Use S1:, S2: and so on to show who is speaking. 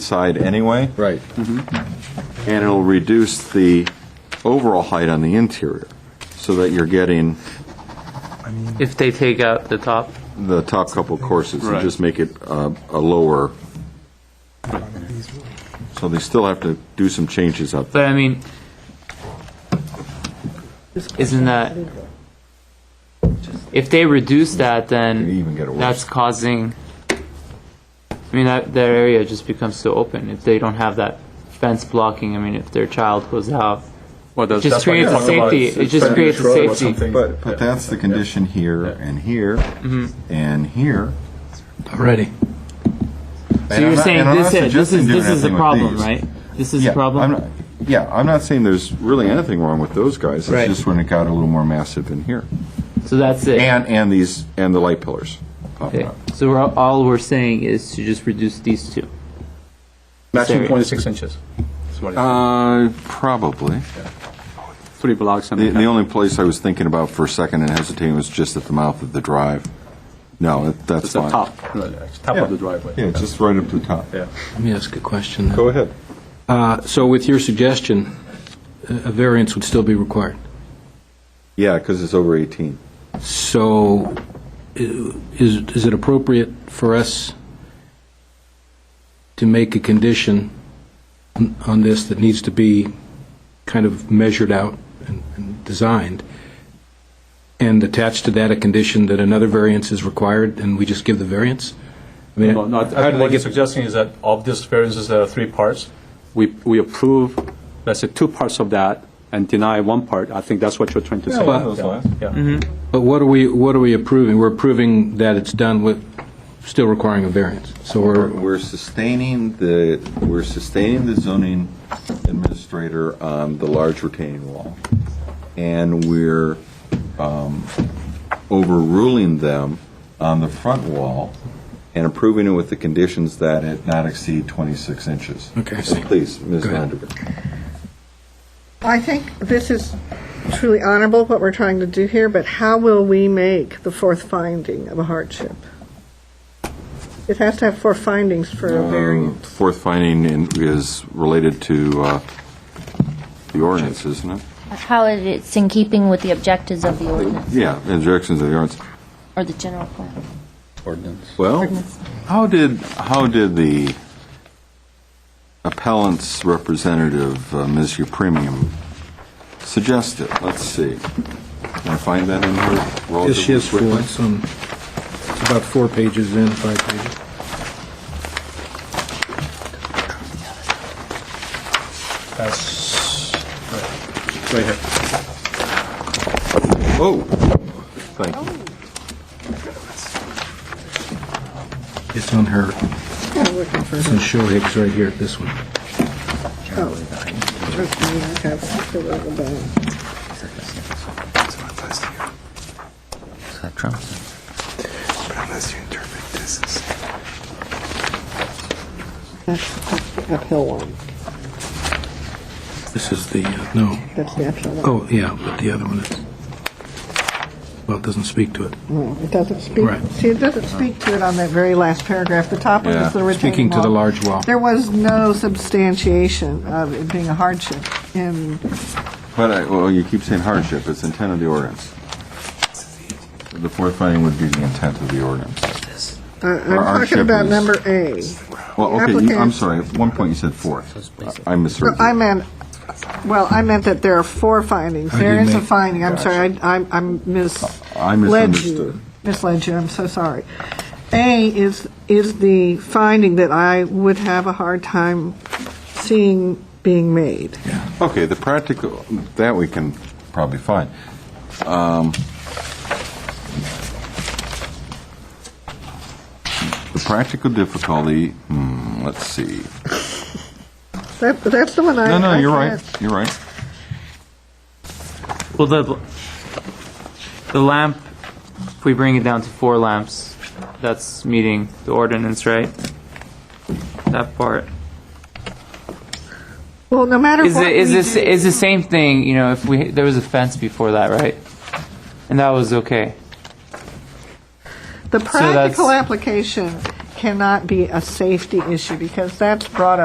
S1: side anyway, Mm-hmm.
S2: Right.
S1: and it'll reduce the overall height on the interior, so that you're getting
S3: If they take out the top,
S1: the top couple courses, and
S4: Right.
S1: just make it uh, a lower, so they still have to do some changes up there.
S3: but I mean, isn't that, if they reduce that,
S1: You
S3: then
S1: even get it worse.
S3: that's causing, I mean, that, that area just becomes so open if they don't have that fence blocking. I mean, if their child goes out,
S4: Well,
S3: it
S4: that's,
S3: just creates a safety, it just creates a safety.
S1: But, but that's the condition here, and here, and here.
S2: Ready.
S3: Mm-hmm. So you're saying this, is- this is, this is a
S1: a
S3: problem, right? This is
S1: Yeah,
S3: a problem?
S1: I'm not- Yeah, I'm not saying there's really anything wrong with those guys.
S3: Right.
S1: It's just when it got a little more massive in here.
S3: So that's it.
S1: And, and these, and the light pillars popping
S3: Okay.
S1: up.
S3: So we're, all we're saying is to just reduce these two.
S2: Maximum
S3: Sorry.
S2: 26 inches. That's what it-
S1: Uh, probably.
S4: three blocks and
S1: The,
S4: a
S1: the
S4: half.
S1: only place I was thinking about for a second and hesitating was just at the mouth of the drive. No, that- that's
S4: It's the
S1: fine.
S4: top.
S2: No, no, it's Top of the driveway.
S1: Yeah, just right up to the top.
S2: Yeah.
S5: Let me ask a question.
S1: Go ahead.
S5: Uh, So with your suggestion, a a variance would still be required.
S1: Yeah, because it's over 18.
S5: So i- is is it appropriate for us to make a condition on- on this that needs to be kind of measured out and and designed, and attached to that a condition that another variance is required, and we just give the variance? I mean,
S2: No, no, I
S5: how do
S2: think
S5: they
S2: what you're
S5: get
S2: suggesting is that of these variances, there are three parts.
S4: We, we approve, let's say, two parts of that and deny one part. I think that's what you're trying to say.
S5: well-
S1: those lines.
S2: Yeah.
S5: But what are we, what are we approving? We're approving that it's done with, still requiring a variance. So
S1: We're,
S5: we're,
S1: we're sustaining the, we're sustaining the zoning administrator on the large retaining wall. And we're um, overruling them on the front wall and approving it with the conditions that it not exceed 26 inches.
S5: Okay, I
S1: So
S5: see.
S1: Please, Ms.
S5: Go ahead.
S1: Vanderburg.
S6: I think this is truly honorable, what we're trying to do here, but how will we make the fourth finding of a hardship? It has to have four findings for a variance.
S1: Um, Fourth finding in- is related to uh, the ordinance, isn't it?
S7: How it is in keeping with the objectives of the ordinance
S1: Yeah, injections of the ordinance.
S7: or the general plan?
S1: Well,
S7: Ordinance.
S1: how did, how did the appellant's representative, uh, Ms. Upremium, suggest it? Let's see. Can I find that in her?
S5: yes, she
S1: relative
S5: has four,
S1: quickly?
S5: it's on- it's about four pages in, five pages.
S2: That's, right. right here.
S1: Oh, thank you.
S5: It's on her,
S6: I'm looking for
S5: it's
S6: the-
S5: in Shohig's right here, this one.
S6: okay, I have to look about it. That's that's the uphill one.
S5: This is the, uh, no,
S6: That's the uphill one.
S5: oh, yeah, but the other one is, well, it doesn't speak to it.
S6: No, It doesn't speak,
S5: Right.
S6: see, it doesn't speak to it on that very last paragraph. The top one
S1: Yeah.
S6: is the retaining
S5: Speaking to the
S6: wall.
S5: large wall.
S6: There was no substantiation of it being a hardship in
S1: But, I- well, you keep saying hardship, it's intent of the ordinance. The fourth finding would be the intent of the ordinance.
S6: Uh,
S1: Our- our
S6: I'm talking
S1: ship
S6: about
S1: is-
S6: number A.
S1: Well, okay, you- I'm
S6: Applicant-
S1: sorry, at one point you said fourth. I misheard
S6: No,
S1: you.
S6: I meant, well, I meant that there are four findings.
S5: I didn't
S6: There is a
S5: make-
S6: finding, I'm sorry, I I'm- I'm
S1: I
S6: misled
S1: misunderstood.
S6: you. Misled you, I'm so sorry. A is, is the finding that I would have a hard time seeing being made.
S1: Okay, the practical, that we can probably find. Um, The practical difficulty, hmm, let's see.
S6: That, that's the one I.
S1: No, no,
S6: I
S1: you're right,
S6: can't-
S1: you're right.
S3: Well, the, the lamp, if we bring it down to four lamps, that's meeting the ordinance, right? That part.
S6: Well, no matter
S3: Is
S6: what
S3: it, is
S6: we
S3: this,
S6: do-
S3: is the same thing, you know, if we, there was a fence before that, right? And that was okay.
S6: The
S3: that's-
S6: practical application cannot be a safety issue because that's brought up.